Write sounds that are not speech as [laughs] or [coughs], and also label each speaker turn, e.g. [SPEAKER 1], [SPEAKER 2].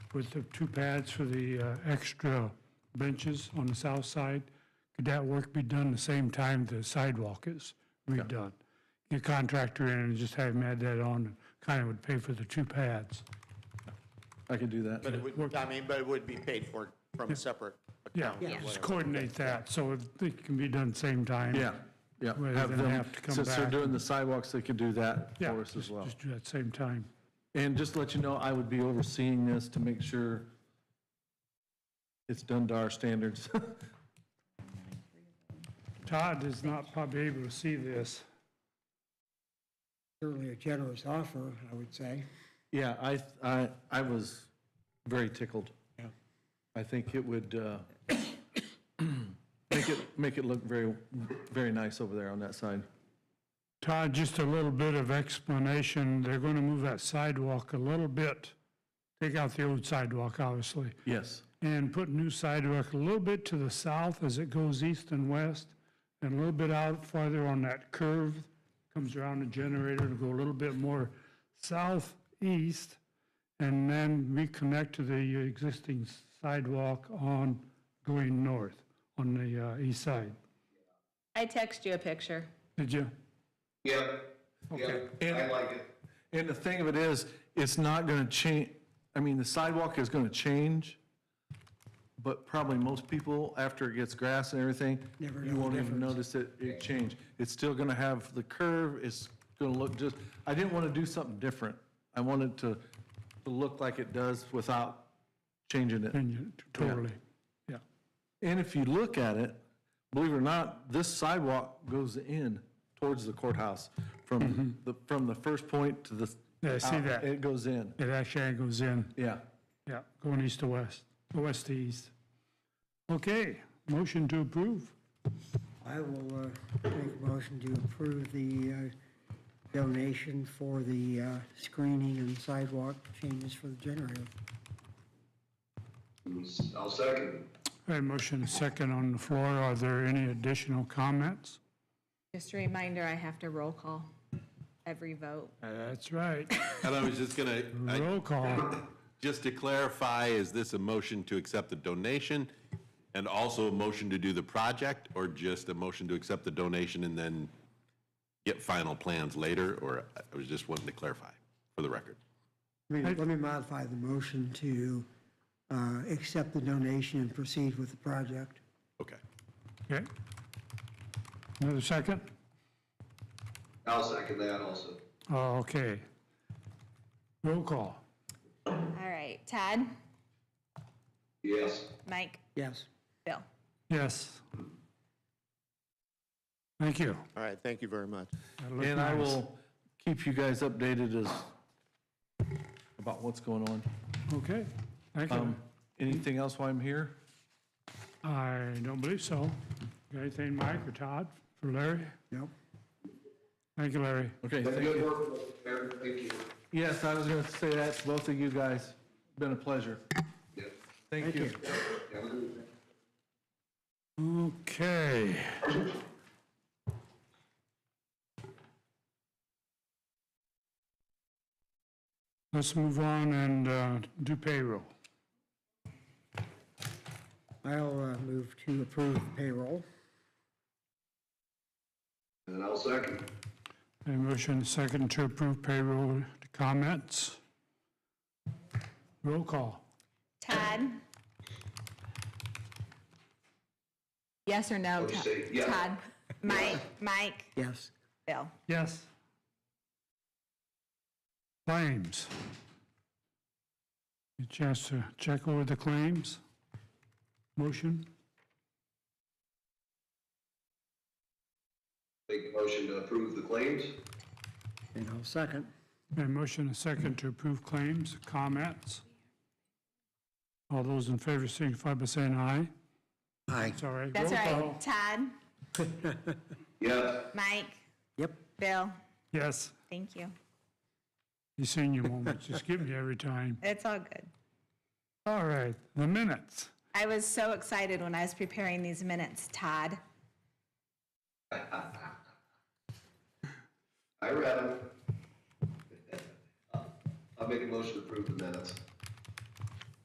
[SPEAKER 1] with the two pads for the uh, extra benches on the south side, could that work be done the same time the sidewalk is redone? Get contractor in and just have him add that on, kind of would pay for the two pads.
[SPEAKER 2] I could do that.
[SPEAKER 3] But it would, I mean, but it would be paid for from a separate
[SPEAKER 1] Yeah,
[SPEAKER 3] account or
[SPEAKER 1] just
[SPEAKER 3] whatever.
[SPEAKER 1] coordinate that, so if it can be done same time.
[SPEAKER 2] Yeah, yeah.
[SPEAKER 1] Rather
[SPEAKER 2] Have
[SPEAKER 1] than
[SPEAKER 2] them-
[SPEAKER 1] have to come
[SPEAKER 2] Since they're
[SPEAKER 1] back
[SPEAKER 2] doing the sidewalks, they could do that
[SPEAKER 1] Yeah,
[SPEAKER 2] for us as
[SPEAKER 1] just-
[SPEAKER 2] well.
[SPEAKER 1] Just do that same time.
[SPEAKER 2] And just to let you know, I would be overseeing this to make sure it's done to our standards. [laughs]
[SPEAKER 1] Todd is not probably able to see this.
[SPEAKER 4] Certainly a generous offer, I would say.
[SPEAKER 2] Yeah, I, I, I was very tickled.
[SPEAKER 4] Yeah.
[SPEAKER 2] I think it would uh, [coughs] make it, make it look very, very nice over there on that side.
[SPEAKER 1] Todd, just a little bit of explanation. They're going to move that sidewalk a little bit, take out the old sidewalk, obviously,
[SPEAKER 2] Yes.
[SPEAKER 1] and put new sidewalk a little bit to the south as it goes east and west, and a little bit out farther on that curve, comes around the generator to go a little bit more southeast, and then reconnect to the existing sidewalk on going north on the uh, east side.
[SPEAKER 5] I text you a picture.
[SPEAKER 1] Did you?
[SPEAKER 6] Yeah, yeah, I like it.
[SPEAKER 2] And the thing of it is, it's not going to change, I mean, the sidewalk is going to change, but probably most people, after it gets grass and everything,
[SPEAKER 4] Never
[SPEAKER 2] you
[SPEAKER 4] know the
[SPEAKER 2] won't even
[SPEAKER 4] difference.
[SPEAKER 2] notice it, it changed. It's still going to have the curve, it's going to look just, I didn't want to do something different. I wanted to, to look like it does without changing it.
[SPEAKER 1] And you, totally. Yeah.
[SPEAKER 2] And if you look at it, believe it or not, this sidewalk goes in towards the courthouse from the, from the first point to the.
[SPEAKER 1] Yeah, I see
[SPEAKER 2] out,
[SPEAKER 1] that.
[SPEAKER 2] It goes in,
[SPEAKER 1] It actually angles in,
[SPEAKER 2] yeah.
[SPEAKER 1] yeah, going east to west, or west to east. Okay, motion to approve.
[SPEAKER 4] I will uh, make a motion to approve the uh, donation for the uh, screening and sidewalk changes for the generator.
[SPEAKER 6] I'll second.
[SPEAKER 1] I have motion second on the floor. Are there any additional comments?
[SPEAKER 5] Just a reminder, I have to roll call every vote.
[SPEAKER 1] Uh. That's right.
[SPEAKER 7] And I was just gonna, I-
[SPEAKER 1] Roll call.
[SPEAKER 7] just to clarify, is this a motion to accept the donation and also a motion to do the project, or just a motion to accept the donation and then get final plans later? Or I was just wanting to clarify for the record.
[SPEAKER 4] Let me- let me modify the motion to uh, accept the donation and proceed with the project.
[SPEAKER 7] Okay.
[SPEAKER 1] Okay. Another second?
[SPEAKER 6] I'll second that also.
[SPEAKER 1] Oh, okay. Roll call.
[SPEAKER 5] All right, Todd,
[SPEAKER 6] Yes.
[SPEAKER 5] Mike,
[SPEAKER 4] Yes.
[SPEAKER 5] Bill.
[SPEAKER 1] Yes. Thank you.
[SPEAKER 3] All right, thank you very much.
[SPEAKER 1] That looked
[SPEAKER 2] And I
[SPEAKER 1] nice.
[SPEAKER 2] will keep you guys updated as, about what's going on.
[SPEAKER 1] Okay, thank you.
[SPEAKER 2] Um, Anything else while I'm here?
[SPEAKER 1] I don't believe so. Got anything, Mike or Todd, for Larry?
[SPEAKER 4] Nope.
[SPEAKER 1] Thank you, Larry.
[SPEAKER 2] Okay, thank
[SPEAKER 6] Good
[SPEAKER 2] you.
[SPEAKER 6] work, Mayor. Thank you.
[SPEAKER 2] Yes, I was going to say that to both of you guys. Been a pleasure.
[SPEAKER 6] Yeah.
[SPEAKER 2] Thank you. Mm.
[SPEAKER 6] Have a good evening.
[SPEAKER 1] Okay. Let's move on and uh, do payroll.
[SPEAKER 4] I'll uh, move to approve payroll.
[SPEAKER 6] And I'll second.
[SPEAKER 1] A motion second to approve payroll. Comments? Roll call.
[SPEAKER 5] Todd? Yes or no?
[SPEAKER 6] Let's
[SPEAKER 5] Todd?
[SPEAKER 6] see, [laughs] yeah.
[SPEAKER 5] Todd, Mike, Mike,
[SPEAKER 4] Yes.
[SPEAKER 5] Bill.
[SPEAKER 1] Yes. Claims. A chance to check over the claims? Motion?
[SPEAKER 6] Make a motion to approve the claims.
[SPEAKER 4] And I'll second.
[SPEAKER 1] A motion and a second to approve claims, comments. All those in favor signify by saying aye.
[SPEAKER 4] Aye.
[SPEAKER 1] Sorry.
[SPEAKER 5] That's
[SPEAKER 1] roll
[SPEAKER 5] right,
[SPEAKER 1] call.
[SPEAKER 5] Todd,
[SPEAKER 6] Yes.
[SPEAKER 5] Mike,
[SPEAKER 4] Yep.
[SPEAKER 5] Bill.
[SPEAKER 1] Yes,
[SPEAKER 5] Thank you.
[SPEAKER 1] you senior moment, just give me every time.
[SPEAKER 5] It's all good.
[SPEAKER 1] All right, the minutes.
[SPEAKER 5] I was so excited when I was preparing these minutes, Todd.
[SPEAKER 6] [laughs] I read them. I'll make a motion to approve the minutes.